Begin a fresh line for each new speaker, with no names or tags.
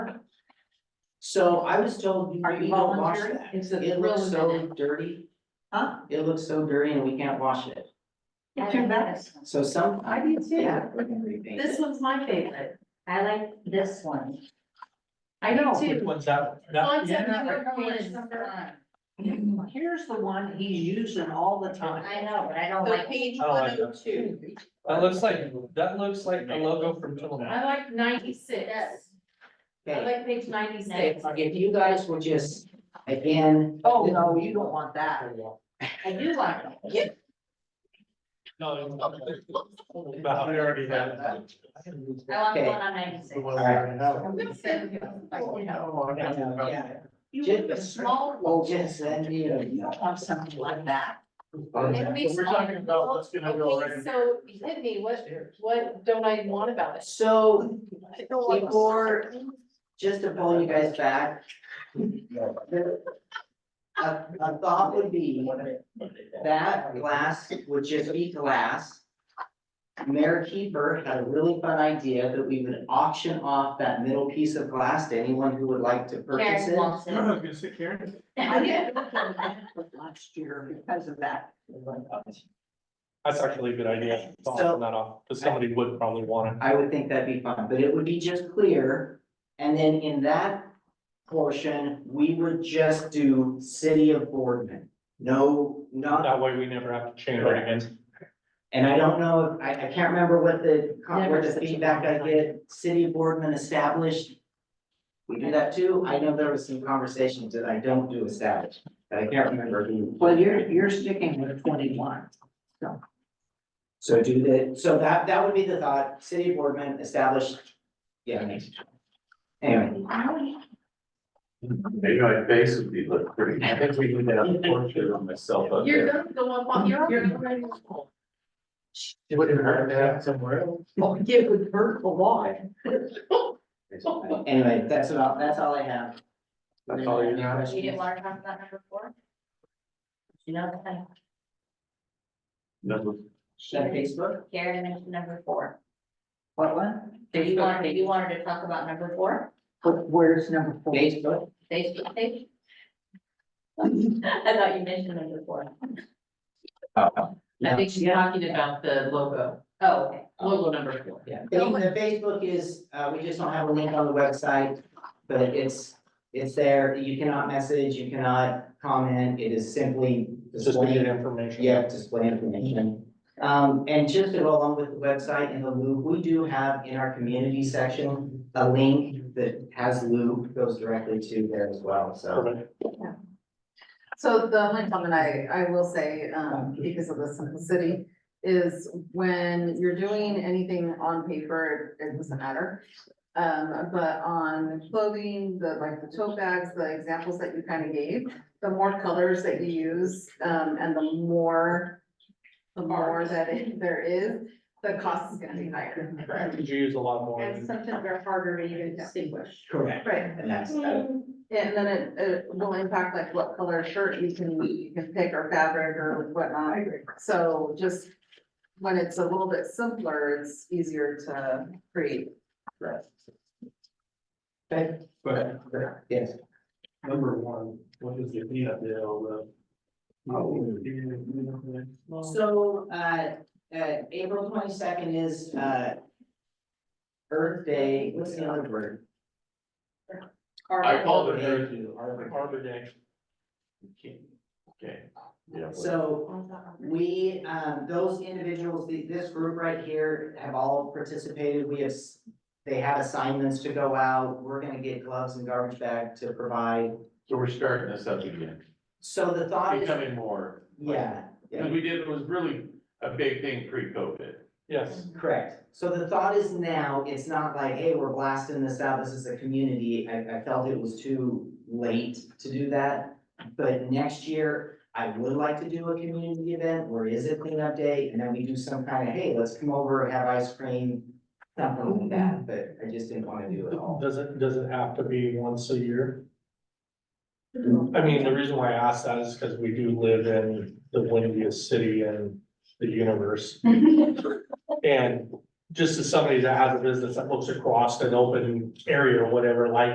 So I was told you
Are you
you don't wash
volunteering?
that.
Is
It looks so dirty.
Huh?
It looks so dirty and we can't wash it.
It's your best.
So some.
I do too.
Yeah, we're gonna repaint
This
it.
one's my favorite.
I like this one.
I know.
Which one's that? That- yeah.
Here's the one he's using all the time.
I know, but I don't
So
like.
page
I
one
like
oh two.
That looks like, that looks like the logo from Tillamook.
I like ninety-six.
Yes.
I
Okay,
like page ninety-six.
if you guys would just, again.
Oh, no, you don't want that.
I do like it.
No. But I already have that.
I want the
Okay.
one on ninety-six.
Yeah.
You want the small
Oh,
one.
yes, and you.
You don't want something like that.
If we
We're talking about what's gonna go
Okay,
right-
So hit me, what, what don't I want about it?
So before, just to pull you guys back. A, a thought would be that glass would just be glass. Mayor Keeper had a really fun idea that we would auction off that middle piece of glass to anyone who would like to purchase
Karen
it.
wants it.
gonna say Karen.
I didn't look at that for last year because of that.
That's actually a good idea. I'll
So-
turn that off, because somebody would probably want
I would think that'd be fun, but it would be just clear. And then in that portion, we would just do city of Boardman. No,
it.
not,
That way we never have to change it again.
and I don't know, I, I can't remember what the, what
Never
the
such a
feedback I
long
get, city of Boardman established. We do that too. I know there was some conversations that I don't do established, but I can't remember who.
Well, you're, you're sticking with twenty-one.
So do the, so that, that would be the thought, city of Boardman established. Yeah. Anyway.
Maybe my face would be look pretty, I think we need to have a portrait on myself up You're there.
gonna go up on, you're already.
It would hurt to have somewhere else.
Well, it would hurt a lot.
Anyway, that's about, that's all I have.
That's all you got?
You didn't want to talk about number four? You know, I-
Number
Is that Facebook?
Karen mentioned number four.
What one?
So you wanted, you wanted to talk about number four,
But Where's number four?
Facebook?
Facebook page? I thought you mentioned number four.
I
think she's talking about the logo,
Oh, okay.
logo number four.
Yeah. The the Facebook is, uh, we just don't have a link on the website, but it's, it's there. You cannot message, you cannot comment. It is simply
It's just we get
displaying,
information.
yeah, display information. Um, and just to go along with the website and the loop, we do have in our community section, a link that has loop, goes directly to there as well, so.
Perfect.
So the only comment I, I will say, um, because of the simplicity, is when you're doing anything on paper, it doesn't matter. Um, but on clothing, the, like the tote bags, the examples that you kind of gave, the more colors that you use, um, and the more, the more that it- there is, the cost is gonna be higher.
Could you use a lot more?
And sometimes they're harder to even distinguish.
Correct.
Right,
And that's, uh,
and then it, it will impact like what color shirt you can, you can pick or fabric or whatnot. So just when it's a little bit simpler, it's easier to create.
okay,
But
yes.
number one, what is the, uh? yeah, the,
So, uh, uh, April twenty-second is, uh. Earth Day, what's the other word?
I called it
Arbor
Earth
Day.
Arbor Day.
Okay, yeah. well,
So we, um, those individuals, the- this group right here have all participated. We have, s- they have assignments to go out. We're gonna get gloves and garbage bag to provide.
So we're starting this up again,
So the thought is,
becoming more.
yeah, yeah.
Because we did, it was really a big thing pre-COVID.
Yes,
Correct. So the thought is now, it's not like, hey, we're blasting this out, this is a community. I, I felt it was too late to do that. But next year, I would like to do a community event where is it cleanup day? And then we do some kind of, hey, let's come over, have ice cream, something like that, but I just didn't want to do it all.
does it, does it have to be once a year? I mean, the reason why I ask that is because we do live in the windiest city in the universe. And just as somebody that has a business that looks across an open area or whatever, like